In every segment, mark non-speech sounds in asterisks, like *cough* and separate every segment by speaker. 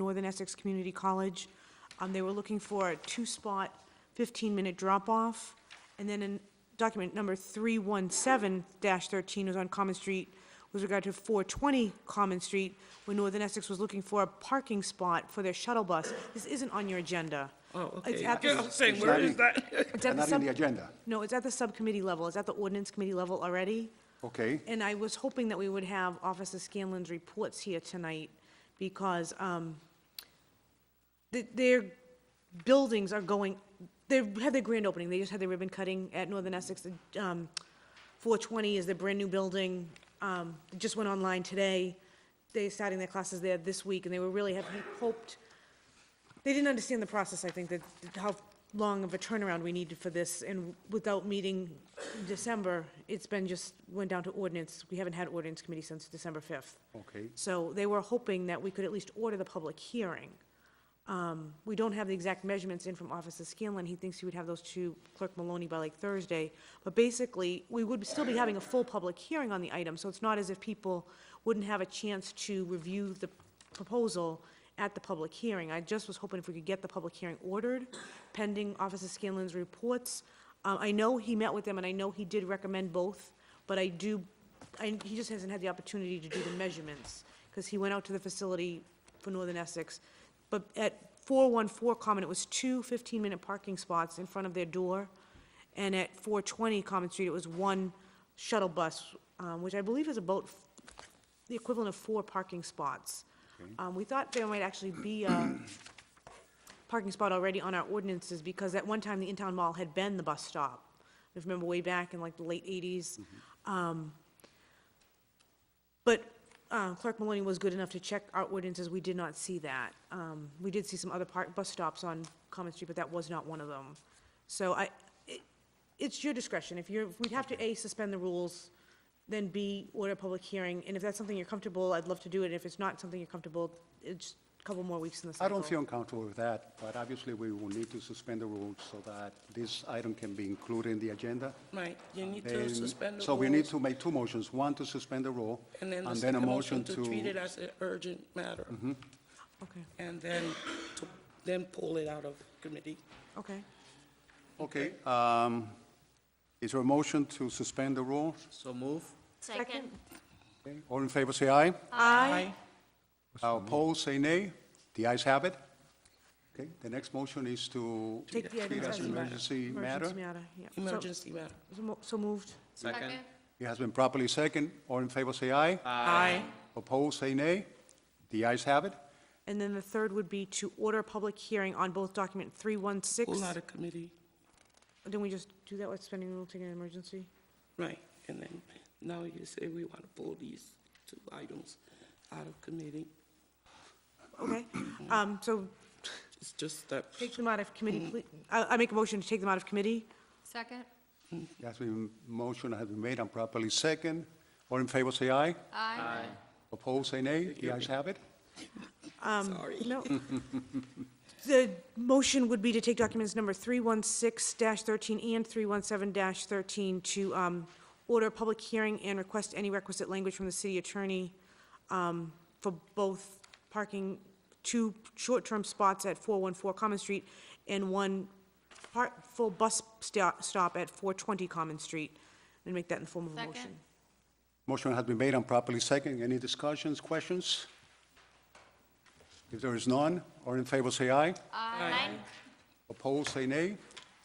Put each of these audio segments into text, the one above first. Speaker 1: Northern Essex Community College. Um, They were looking for a two-spot, 15-minute drop-off. And then in document number 317-13 was on Common Street with regard to 420 Common Street, where Northern Essex was looking for a parking spot for their shuttle bus. This isn't on your agenda.
Speaker 2: Oh,
Speaker 1: It's
Speaker 2: okay.
Speaker 1: at
Speaker 2: Yeah, I
Speaker 1: the
Speaker 2: was saying, where is that?
Speaker 1: it's at the
Speaker 3: And not in
Speaker 1: sub-
Speaker 3: the agenda,
Speaker 1: No, it's at the subcommittee level. It's at the ordinance committee level already.
Speaker 3: okay?
Speaker 1: And I was hoping that we would have Officer Scanlon's reports here tonight, because um, th- their buildings are going, they had their grand opening, they just had their ribbon cutting at Northern Essex. Um, 420 is their brand-new building, Um, it just went online today. They're starting their classes there this week, and they were really, have hoped they didn't understand the process, I think, that, that how long of a turnaround we needed for this, and without meeting in December, it's been just, went down to ordinance, we haven't had ordinance committee since December fifth.
Speaker 3: Okay.
Speaker 1: So they were hoping that we could at least order the public hearing. Um, we don't have the exact measurements in from Officer Scanlon, he thinks he would have those to Clerk Maloney by like Thursday, but basically, we would still be having a full public hearing on the item, so it's not as if people wouldn't have a chance to review the proposal at the public hearing. I just was hoping if we could get the public hearing ordered pending Officer Scanlon's reports. Uh, I know he met with them, and I know he did recommend both, but I do, I, he just hasn't had the opportunity to do the measurements, because he went out to the facility for Northern Essex. But at 414 Common, it was two 15-minute parking spots in front of their door, and at 420 Common Street, it was one shuttle bus, um, which I believe is about the equivalent of four parking spots. Um, We thought there might actually be a parking spot already on our ordinances, because at one time, the in-town mall had been the bus stop. If you remember way back in like the late 80s.
Speaker 3: Mm-hmm.
Speaker 1: Um, But uh, Clerk Maloney was good enough to check our ordinances, we did not see that. Um, We did see some other park, bus stops on Common Street, but that was not one of them. So I, it- it's your discretion, if you're, we'd have to A, suspend the rules, then B, order a public hearing, and if that's something you're comfortable, I'd love to do it, if it's not something you're comfortable, it's a couple more weeks in the
Speaker 3: I
Speaker 1: cycle.
Speaker 3: don't feel uncomfortable with that, but obviously we will need to suspend the rules so that this item can be included in the agenda.
Speaker 2: *laughs* Right, you need to
Speaker 3: And
Speaker 2: suspend the rules.
Speaker 3: So we need to make two motions, one to suspend the rule,
Speaker 2: And then the
Speaker 3: a
Speaker 2: second
Speaker 3: motion
Speaker 2: to treat it
Speaker 3: to, Mm-hmm.
Speaker 2: as an urgent matter,
Speaker 1: Okay,
Speaker 2: and then, to then pull it out of committee.
Speaker 1: okay.
Speaker 3: okay. um, Is there a motion to suspend the rule?
Speaker 2: So move.
Speaker 1: Second.
Speaker 3: Okay, All in favor, say aye.
Speaker 2: Aye.
Speaker 3: Opposed, say nay. The ayes have it. Okay, the next motion is to
Speaker 1: Take the
Speaker 3: treat
Speaker 1: items
Speaker 3: as
Speaker 1: as
Speaker 3: an
Speaker 1: an
Speaker 3: emergency matter.
Speaker 1: Emergency matter, yeah. So-
Speaker 2: Emergency matter.
Speaker 1: so mo- So moved.
Speaker 4: Second.
Speaker 3: It has been properly second. All in favor, say aye.
Speaker 2: Aye.
Speaker 3: Opposed, say nay. The ayes have it.
Speaker 1: And then the third would be to order a public hearing on both document
Speaker 2: Pull out
Speaker 1: 316.
Speaker 2: of committee,
Speaker 1: Didn't we just do that with spending rule, taking an emergency?
Speaker 2: right, and then, now you say we want to pull these two items out of committee.
Speaker 1: Okay, um, so
Speaker 2: It's just that,
Speaker 1: take them out of committee, please. I, I make a motion to take them out of committee.
Speaker 4: Second?
Speaker 3: It has been, motion has been made and properly second. All in favor, say aye.
Speaker 4: Aye.
Speaker 3: Opposed, say nay. The ayes have it.
Speaker 2: sorry.
Speaker 1: No. The motion would be to take documents number 316-13 and 317-13 to um, order a public hearing and request any requisite language from the city attorney um, for both parking, two short-term spots at 414 Common Street and one part, full bus sta- stop at 420 Common Street, and make that in the form of a motion.
Speaker 4: Second.
Speaker 3: Motion has been made and properly second. Any discussions, questions? If there is none, all in favor, say aye.
Speaker 4: Aye.
Speaker 3: Opposed, say nay.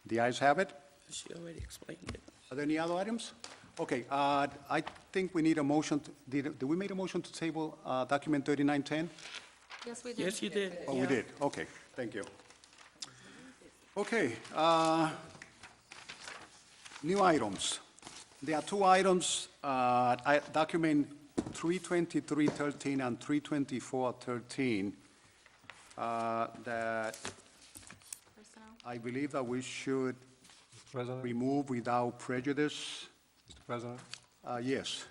Speaker 3: The ayes have it.
Speaker 2: She already explained it.
Speaker 3: Are there any other items? Okay, uh, I think we need a motion, to- did, did we make a motion to table uh, document 3910?
Speaker 4: Yes, we did.
Speaker 2: Yes, you did.
Speaker 3: Oh, we did, okay, thank you. Okay, uh, new items. There are two items, uh, I- document 32313 and 32413, uh, that
Speaker 4: Personnel.
Speaker 3: I believe that we should
Speaker 5: President,
Speaker 3: remove without prejudice.
Speaker 5: Mr. President,
Speaker 3: Uh, Yes.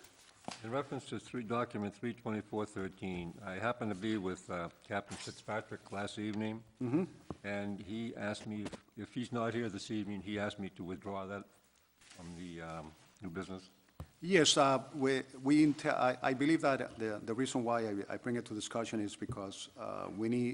Speaker 5: in reference to three, document 32413, I happened to be with uh, Captain Fitzpatrick last evening, and he asked me, if- if he's not here this evening, he asked me to withdraw that from the um, new business.
Speaker 3: Yes, uh, we, we, inte- I I believe that the, the reason why I- I bring it to discussion is because uh, we need,